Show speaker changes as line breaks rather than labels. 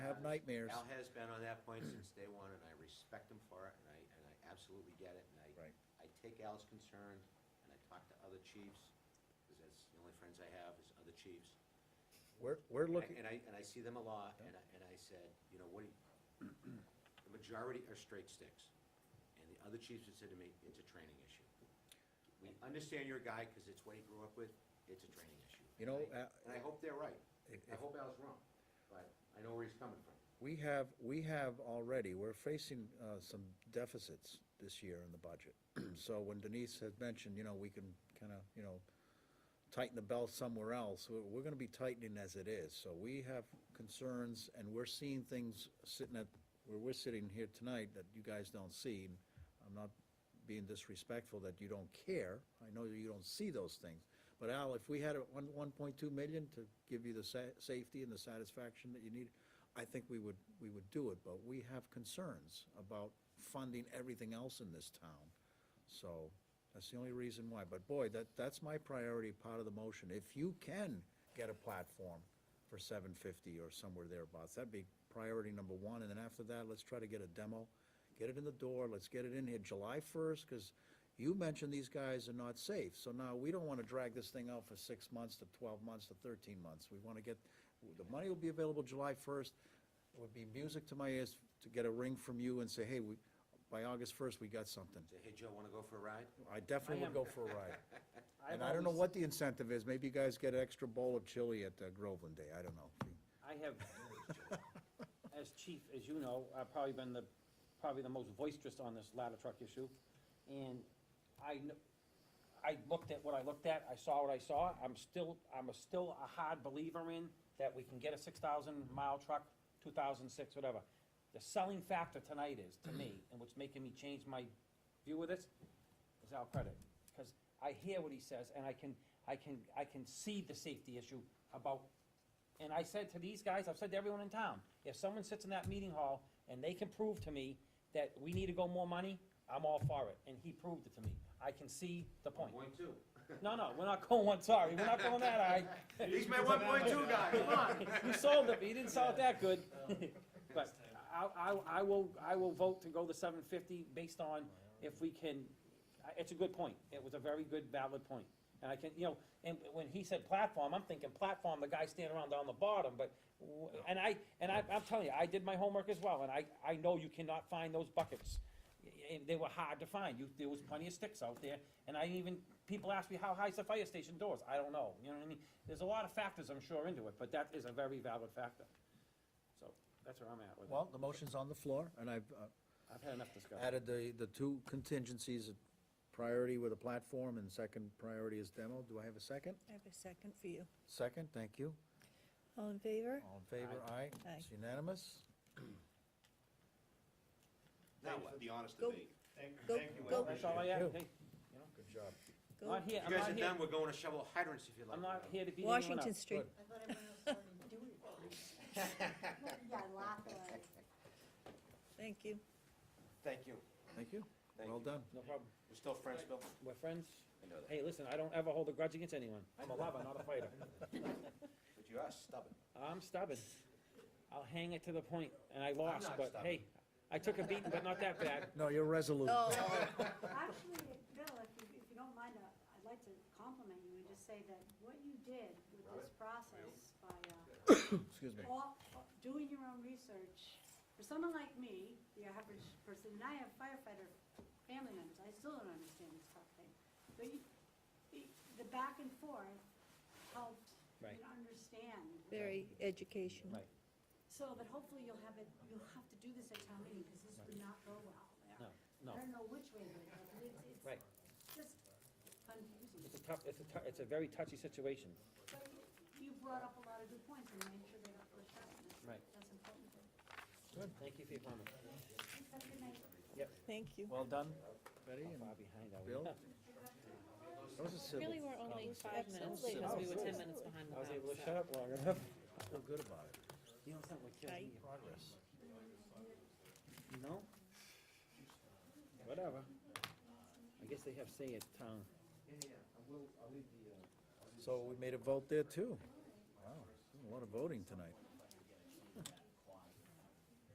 have nightmares.
Al has been on that point since day one, and I respect him for it, and I, and I absolutely get it, and I,
Right.
I take Al's concern, and I talk to other chiefs, because that's the only friends I have, is other chiefs.
We're, we're
And I-
looking,
And I, and I see them a lot,
Yeah.
and I, and I said, you know, what do you, the majority are straight sticks. And the other chiefs have said to me, it's a training issue. We understand your guy, because it's what he grew up with, it's a training issue.
You know,
And I-
uh,
And I hope they're right.
if- if-
I hope Al's wrong, but I know where he's coming from.
we have, we have already, we're facing, uh, some deficits this year in the budget. So when Denise had mentioned, you know, we can kinda, you know, tighten the belt somewhere else, we're, we're gonna be tightening as it is. So we have concerns and we're seeing things sitting at, where we're sitting here tonight that you guys don't see. And I'm not being disrespectful that you don't care. I know you don't see those things. But Al, if we had a one, one point two million to give you the sa- safety and the satisfaction that you need, I think we would, we would do it, but we have concerns about funding everything else in this town. So that's the only reason why. But boy, that, that's my priority part of the motion. If you can get a platform for seven fifty or somewhere thereabouts, that'd be priority number one. And then after that, let's try to get a demo, get it in the door, let's get it in here July first, because you mentioned these guys are not safe. So now we don't want to drag this thing out for six months to twelve months to thirteen months. We want to get, the money will be available July first. It would be music to my ears to get a ring from you and say, hey, we, by August first, we got something.
Say, hey, Joe, wanna go for a ride?
I definitely would go for a ride.
I've
And I don't know
always-
what the incentive is, maybe you guys get an extra bowl of chili at uh, Groveland Day, I don't know.
I have, as chief, as you know, I've probably been the, probably the most boisterous on this ladder truck issue. And I, kn- I looked at what I looked at, I saw what I saw, I'm still, I'm a still a hard believer in that we can get a six thousand mile truck, two thousand six, whatever. The selling factor tonight is, to me, and what's making me change my view of this, is Al Credit. Because I hear what he says, and I can, I can, I can see the safety issue about and I said to these guys, I've said to everyone in town, if someone sits in that meeting hall and they can prove to me that we need to go more money, I'm all for it. And he proved it to me. I can see the point.
Point two.
No, no, we're not going one, sorry, we're not going that high.
He's my one point two guy, come on.
You sold it, but you didn't sell it that good. But I, I, I will, I will vote to go the seven fifty based on if we can, I- it's a good point. It was a very good valid point. And I can, you know, and when he said platform, I'm thinking platform, the guy standing around down the bottom, but, w- and I, and I, I'm telling you, I did my homework as well, and I, I know you cannot find those buckets. And they were hard to find. You, there was plenty of sticks out there, and I even, people ask me, how high's the fire station doors? I don't know, you know what I mean? There's a lot of factors, I'm sure, into it, but that is a very valid factor. So, that's where I'm at with it.
Well, the motion's on the floor, and I've uh,
I've had enough discussion.
added the, the two contingencies, priority with a platform and second priority is demo. Do I have a second?
I have a second for you.
Second, thank you.
All in favor?
All in favor, aye.
Aye.
It's unanimous.
Now what? The honest
Go-
debate.
Go, go,
That's all I have,
Thank you.
hey,
Good job.
I'm
go.
not
You
here, I'm
guys are
not here,
done, we're going to shovel hydrants if you like.
I'm not here to beat anyone up.
Washington Street.
I thought everyone else wanted to do it. Yeah, laugh at it.
Thank you.
Thank you.
Thank you.
Thank
Well
you.
done.
No problem,
We're still friends, Bill?
we're friends.
I know that.
Hey, listen, I don't ever hold a grudge against anyone. I'm a lover, not a fighter.
But you are stubborn.
I'm stubborn. I'll hang it to the point, and I lost,
not
but hey, I took a beating, but not that bad.
No, you're resolute.
Oh,
Actually, if- Bill, if you, if you don't mind, uh, I'd like to compliment you and just say that what you did with this process by, uh,
Excuse
Oh,
me.
all, doing your own research, for someone like me, the average person, and I have firefighter family members, I still don't understand this stuff thing. But you, you- the back and forth helped me
Right.
to understand
very educational.
Right.
So, but hopefully you'll have it, you'll have to do this at town meeting, because this would not go well there.
No,
I don't know which way it would go, but it's,
Right.
it's just confusing.
it's a tough, it's a tou- it's a very touchy situation.
But you brought up a lot of good points, and made sure they got pushed out, and that's,
Right.
that's important. Have
Thank you for your comment.
a good night.
Thank you.
Well done.
Betty and
Far behind, I
Bill?
was.
That was a civil.
Really, we're only five minutes,
Absolutely.
because we were
Absolutely.
ten minutes behind the
I was
time,
able to
so.
shut up long enough.
Feel good about it.
You know something that kills
Right.
me? Progress. You know? Whatever. I guess they have say at town.
So we made a vote there too. Wow, a lot of voting tonight.